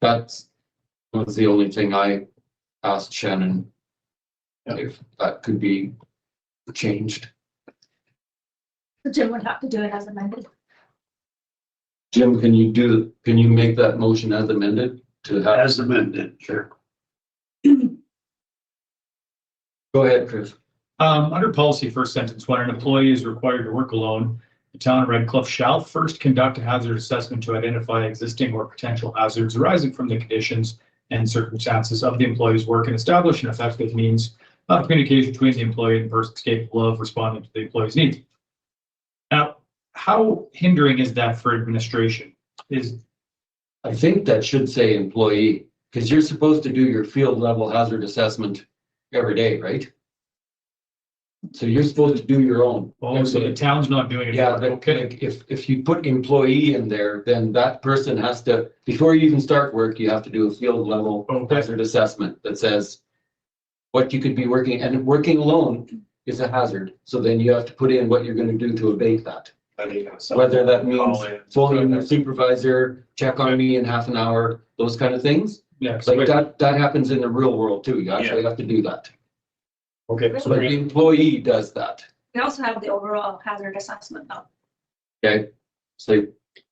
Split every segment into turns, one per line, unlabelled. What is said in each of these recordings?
That was the only thing I asked Shannon.
Yeah.
If that could be changed.
So Jim would have to do it as amended.
Jim, can you do, can you make that motion as amended to have?
As amended, sure.
Go ahead, Chris.
Um, under policy, first sentence, when an employee is required to work alone, the town of Red Cliff shall first conduct a hazard assessment to identify existing or potential hazards arising from the conditions and circumstances of the employee's work and establish an effective means of communication between the employee and persons capable of responding to the employee's needs. Now, how hindering is that for administration? Is,
I think that should say employee, because you're supposed to do your field level hazard assessment every day, right? So you're supposed to do your own.
oh, so the town's not doing it?
Yeah, but
Okay,
like, if, if you put employee in there, then that person has to, before you even start work, you have to do a field level
okay.
hazard assessment that says what you could be working, and working alone is a hazard. So then you have to put in what you're gonna do to abate that. Whether that means phone in your supervisor, check on me in half an hour, those kind of things.
Yeah, so
Like
wait,
that, that happens in the real world too. You actually have to do that.
okay, so
But the employee does that,
We also have the overall hazard assessment though.
okay? So,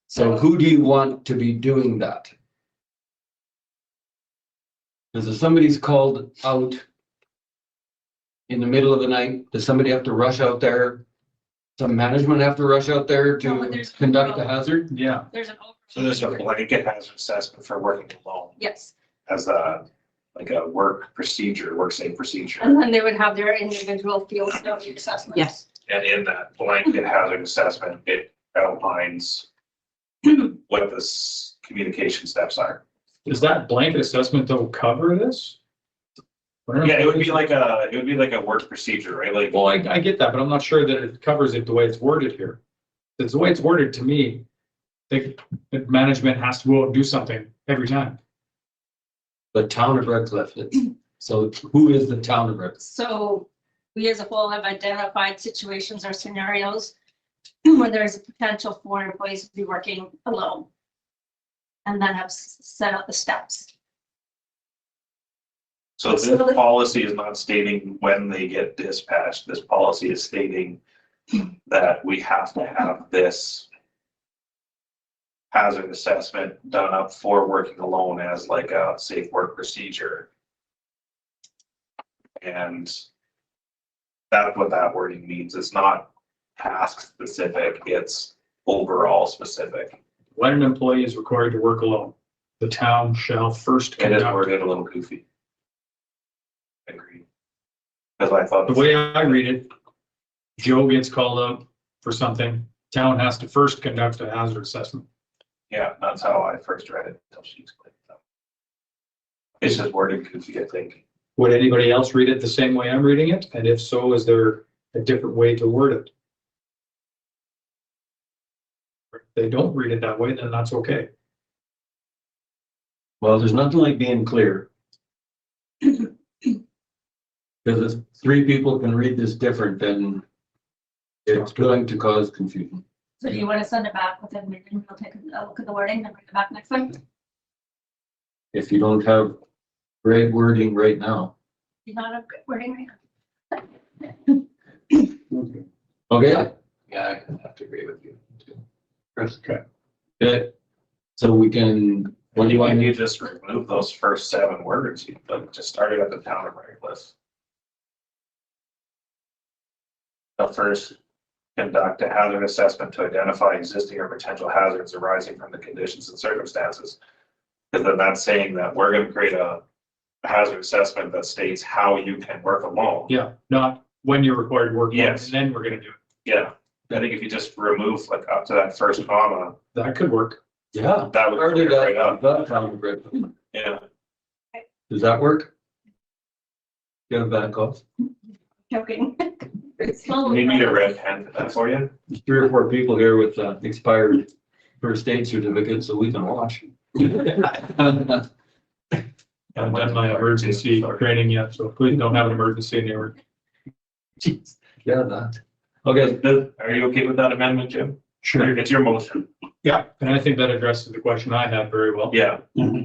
so who do you want to be doing that? Because if somebody's called out in the middle of the night, does somebody have to rush out there? Some management have to rush out there
No, when
to
there's-
conduct the hazard?
yeah.
There's an. overall-
So there's a blanket hazard assessment for working alone
Yes,
as a, like a work procedure, work safe procedure.
and then they would have their individual field study assessment.
Yes,
And in that blanket hazard assessment, it outlines what the s- communication steps are.
Does that blanket assessment though cover this?
Yeah, it would be like a, it would be like a work procedure, right? Like,
Well, I, I get that, but I'm not sure that it covers it the way it's worded here. It's the way it's worded to me, that, that management has to go out and do something every time.
The town of Red Cliff, it's- so who is the town of Red? Cliff?
So we as a whole have identified situations or scenarios where there is a potential for employees to be working alone. And then have s- set out the steps.
so this policy is not stating when they get dispatched. This policy is stating that we have to have this hazard assessment done up for working alone as like a safe work procedure. And that's what that wording means. It's not task specific, it's overall specific.
When an employee is required to work alone, the town shall first
It is
conduct.
worded a little goofy. Agreed. Because I thought.
The way I read it, Joe gets called out for something, town has to first conduct a hazard assessment.
Yeah, that's how I first read it until she explained it. It's just worded goofy, I think.
Would anybody else read it the same way I'm reading it? And if so, is there a different way to word it? If they don't read it that way, then that's okay.
Well, there's nothing like being clear. Because if three people can read this different, then it's going to cause confusion.
So do you want to send it back within, maybe we'll take a look at the wording and bring it back next time?
If you don't have great wording right now.
You're not a good wording right now.
Okay,
Yeah, I have to agree with you.
okay. So we can, what do you want
When
me
you
to,
just remove those first seven words, you like just started at the town of Reckless. The first, conduct a hazard assessment to identify existing or potential hazards arising from the conditions and circumstances. Because then that's saying that we're gonna create a hazard assessment that states how you can work alone.
Yeah, not when you're required to work. on it,
Yes.
And then we're gonna do it.
Yeah, I think if you just remove like up to that first comma,
That could work.
yeah.
that would
Already
clear it right
that,
up.
that sounded great.
Yeah,
Does that work? Get it back off.
Joking.
we need a red pen for that for you.
There's Three or four people here with uh, expired first aid certificates, so we can watch.
I haven't done my emergency training yet, so please don't have an emergency in your.
Jeez, yeah, that. Okay,
Does- Are you okay with that amendment, Jim? It's your motion.
Yeah, and I think that addresses the question I had very well.
Yeah.